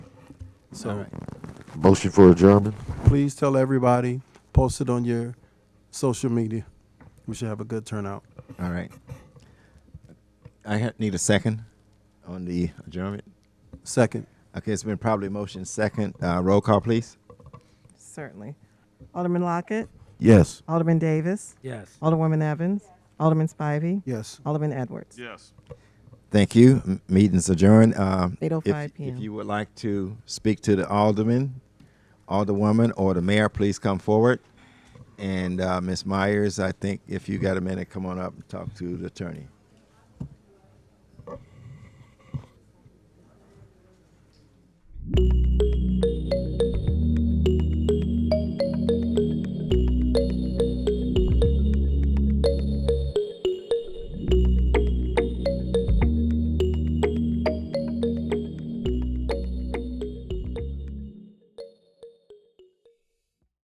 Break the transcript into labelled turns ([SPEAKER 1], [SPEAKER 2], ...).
[SPEAKER 1] So
[SPEAKER 2] Motion for adjournment?
[SPEAKER 1] please tell everybody, post it on your social media. We should have a good turnout.
[SPEAKER 3] All right. I ha- need a second on the adjournment.
[SPEAKER 1] Second,
[SPEAKER 3] Okay, it's been probably motion second. Uh, roll call, please.
[SPEAKER 4] Certainly. Alderman Lockett,
[SPEAKER 2] Yes.
[SPEAKER 4] Alderman Davis,
[SPEAKER 5] Yes.
[SPEAKER 4] Alderwoman Evans, Alderman Spivey,
[SPEAKER 1] yes.
[SPEAKER 4] Alderman Edwards.
[SPEAKER 6] Yes.
[SPEAKER 3] Thank you. M- Meeting's adjourned. Uh, if-
[SPEAKER 4] 8:05 PM.
[SPEAKER 3] If you would like to speak to the alderman, alderwoman, or the mayor, please come forward. And uh, Ms. Myers, I think if you got a minute, come on up and talk to the attorney.